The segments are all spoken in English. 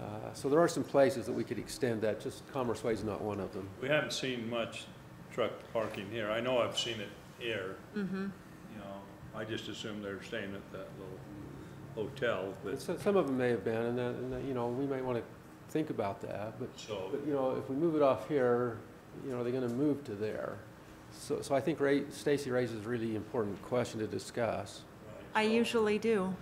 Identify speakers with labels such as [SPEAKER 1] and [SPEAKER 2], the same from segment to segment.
[SPEAKER 1] Uh, So there are some places that we could extend that, just Commerce Way is not one of them.
[SPEAKER 2] We haven't seen much truck parking here. I know I've seen it here.
[SPEAKER 3] Mm-hmm.
[SPEAKER 2] You know, I just assume they're staying at that little hotel,
[SPEAKER 1] But
[SPEAKER 2] but,
[SPEAKER 1] so- some of them may have been, and that, and that, you know, we might want to think about that, but,
[SPEAKER 2] so,
[SPEAKER 1] but, you know, if we move it off here, you know, are they going to move to there? So, so I think Ray, Stacy raises a really important question to discuss.
[SPEAKER 4] I usually do.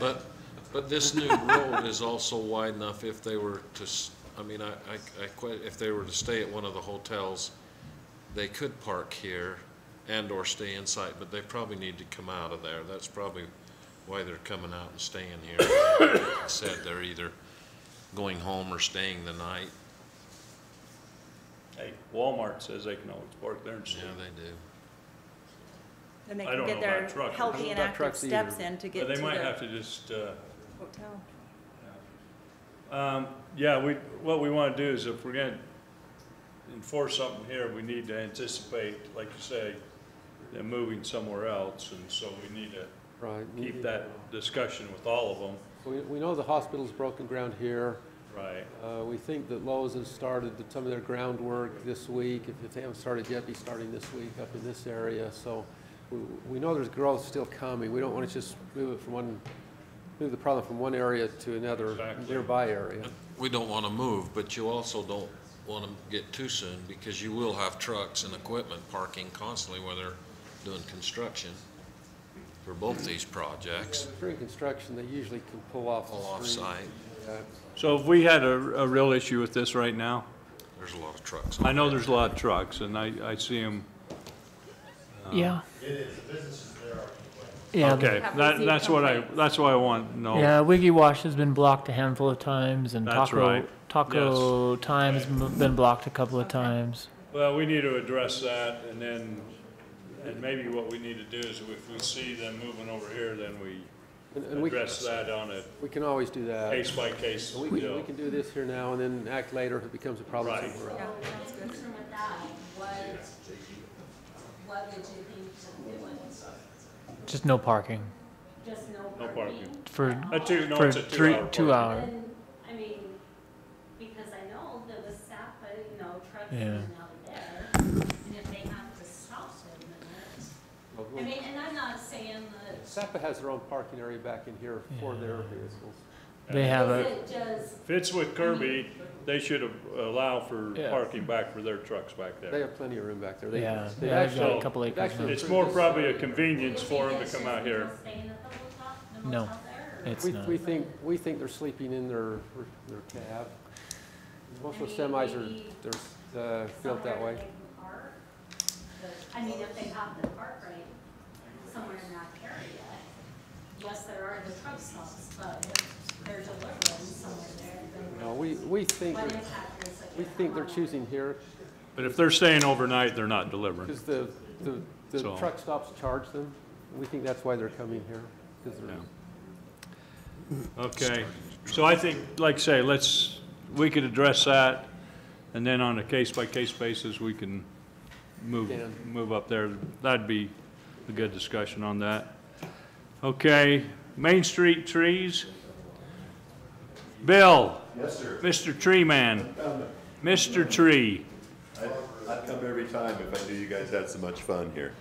[SPEAKER 5] But, but this new road is also wide enough if they were to, s- I mean, I, I, I quite, if they were to stay at one of the hotels, they could park here and/or stay inside, but they probably need to come out of there. That's probably why they're coming out and staying here. Like I Said they're either going home or staying the night.
[SPEAKER 2] hey, Walmart says they can always park there and
[SPEAKER 5] Yeah,
[SPEAKER 2] stay.
[SPEAKER 5] they do.
[SPEAKER 3] Then they
[SPEAKER 2] I
[SPEAKER 3] can
[SPEAKER 2] don't
[SPEAKER 3] get
[SPEAKER 2] know about
[SPEAKER 3] their
[SPEAKER 2] truckers. I
[SPEAKER 1] don't
[SPEAKER 3] healthy
[SPEAKER 1] know
[SPEAKER 3] and
[SPEAKER 1] about
[SPEAKER 3] active
[SPEAKER 1] trucks
[SPEAKER 3] steps
[SPEAKER 1] either.
[SPEAKER 3] in to get
[SPEAKER 2] But
[SPEAKER 3] to
[SPEAKER 2] they might
[SPEAKER 3] the
[SPEAKER 2] have to just, uh,
[SPEAKER 3] hotel.
[SPEAKER 2] Um, Yeah, we, what we want to do is if we're going to enforce something here, we need to anticipate, like you say, them moving somewhere else, and so we need to
[SPEAKER 1] Right.
[SPEAKER 2] keep
[SPEAKER 3] Mm-hmm.
[SPEAKER 2] that discussion with all of them.
[SPEAKER 1] We, we know the hospital's broken ground here.
[SPEAKER 2] Right.
[SPEAKER 1] Uh, We think that Lowe's has started the- some of their groundwork this week. If if they haven't started yet, be starting this week up in this area. So we- we know there's growth still coming. We don't want to just move it from one, move the problem from one area to another
[SPEAKER 2] Exactly.
[SPEAKER 1] nearby area.
[SPEAKER 5] We don't want to move, but you also don't want to get too soon because you will have trucks and equipment parking constantly where they're doing construction for both these projects,
[SPEAKER 1] During construction, they usually can pull off
[SPEAKER 5] all
[SPEAKER 1] the street.
[SPEAKER 5] off-site.
[SPEAKER 1] Yeah.
[SPEAKER 2] So if we had a, a real issue with this right now,
[SPEAKER 5] There's a lot of trucks.
[SPEAKER 2] I know there's a lot of trucks, and I, I see them.
[SPEAKER 6] Yeah. Um, Yeah,
[SPEAKER 2] Okay,
[SPEAKER 3] Have we
[SPEAKER 2] that,
[SPEAKER 3] seen
[SPEAKER 2] that's what I,
[SPEAKER 3] complaints?
[SPEAKER 2] that's what I want to know.
[SPEAKER 6] yeah. Wiggy Wash has been blocked a handful of times, and
[SPEAKER 2] That's
[SPEAKER 6] Taco
[SPEAKER 2] right.
[SPEAKER 6] Taco Time has m- been blocked a couple of times.
[SPEAKER 2] Well, we need to address that, and then, and maybe what we need to do is if we see them moving over here, then we
[SPEAKER 1] And- And we,
[SPEAKER 2] address that on a
[SPEAKER 1] we can always do that.
[SPEAKER 2] case by case
[SPEAKER 1] We can, we
[SPEAKER 2] deal.
[SPEAKER 1] can do this here now and then act later if it becomes a problem
[SPEAKER 2] Right.
[SPEAKER 1] somewhere else.
[SPEAKER 3] Yeah, that's good.
[SPEAKER 7] Concern with that, what, what would you think to do
[SPEAKER 6] Just no parking
[SPEAKER 7] Just no
[SPEAKER 2] No
[SPEAKER 7] parking?
[SPEAKER 2] parking.
[SPEAKER 6] for
[SPEAKER 2] A two, no,
[SPEAKER 6] for
[SPEAKER 2] it's a
[SPEAKER 6] three
[SPEAKER 2] two-hour
[SPEAKER 6] two
[SPEAKER 2] parking.
[SPEAKER 6] hour.
[SPEAKER 7] And, I mean, because I know there was Sapa, uh, you know, trucks in
[SPEAKER 6] Yeah.
[SPEAKER 7] and out of there, and if they have to stop in a
[SPEAKER 1] Well,
[SPEAKER 7] minute. I mean, and I'm not saying that,
[SPEAKER 1] SAPA has their own parking area back in here for their vehicles.
[SPEAKER 6] They have
[SPEAKER 7] is
[SPEAKER 6] a
[SPEAKER 7] it just,
[SPEAKER 2] If it's with Kirby, they should a- allow for
[SPEAKER 6] Yeah.
[SPEAKER 2] parking back for their trucks back
[SPEAKER 1] They
[SPEAKER 2] there.
[SPEAKER 1] have plenty of room back there. They-
[SPEAKER 6] yeah.
[SPEAKER 1] they
[SPEAKER 6] yeah they've got
[SPEAKER 2] actually-
[SPEAKER 6] a couple
[SPEAKER 1] they've
[SPEAKER 6] acres.
[SPEAKER 1] actually-
[SPEAKER 6] now.
[SPEAKER 2] It's more probably a convenience for them to come out here.
[SPEAKER 7] staying at the hotel, the
[SPEAKER 6] No.
[SPEAKER 7] motel there? or-
[SPEAKER 6] It's
[SPEAKER 1] We,
[SPEAKER 6] not.
[SPEAKER 1] we think, we think they're sleeping in their, their cab. Most of the semis are, they're, uh, built that
[SPEAKER 7] somewhere
[SPEAKER 1] way.
[SPEAKER 7] they can park, but, I mean, if they have to park right somewhere in that area, yes, there are the truck stops, but if they're delivering somewhere there, then
[SPEAKER 1] No, we, we think,
[SPEAKER 7] what
[SPEAKER 1] they're-
[SPEAKER 7] impact is it?
[SPEAKER 1] we think they're choosing here,
[SPEAKER 2] But if they're staying overnight, they're not delivering.
[SPEAKER 1] because the, the, the
[SPEAKER 2] So-
[SPEAKER 1] truck stops charge them. We think that's why they're coming here, because they're,
[SPEAKER 2] Okay, so I think, like I say, let's, we could address that, and then on a case-by-case basis, we can move,
[SPEAKER 1] Yeah.
[SPEAKER 2] move up there. That'd be a good discussion on that. Okay, Main Street trees. Bill? Yes, sir. Mr. Tree Man? Mr. Tree.
[SPEAKER 8] I'd come every time if I knew you guys had so much fun here.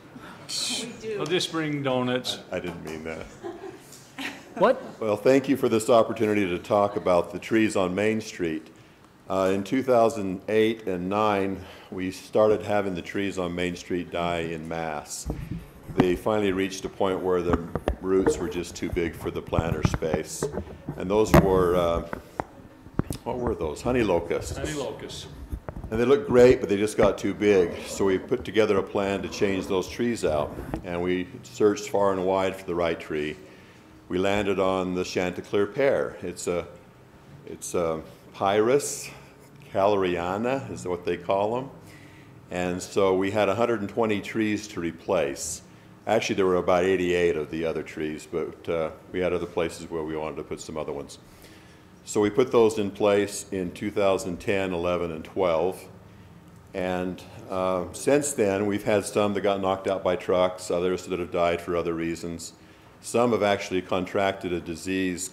[SPEAKER 3] We
[SPEAKER 2] I'll
[SPEAKER 3] do.
[SPEAKER 2] just bring donuts.
[SPEAKER 8] I didn't mean that.
[SPEAKER 6] What?
[SPEAKER 8] Well, thank you for this opportunity to talk about the trees on Main Street. Uh, in 2008 and 9, we started having the trees on Main Street die in mass. They finally reached a point where the roots were just too big for the planter space. And those were, uh, what were those? Honey locusts.
[SPEAKER 2] Honey locusts.
[SPEAKER 8] And they look great, but they just got too big. So we put together a plan to change those trees out. And we searched far and wide for the right tree. We landed on the Chanticleer pear. It's a, it's a pyrus caloriana is what they call them. And so we had 120 trees to replace. Actually, there were about 88 of the other trees, but uh, we had other places where we wanted to put some other ones. So we put those in place in 2010, 11, and 12. And uh, since then, we've had some that got knocked out by trucks, others that have died for other reasons. Some have actually contracted a disease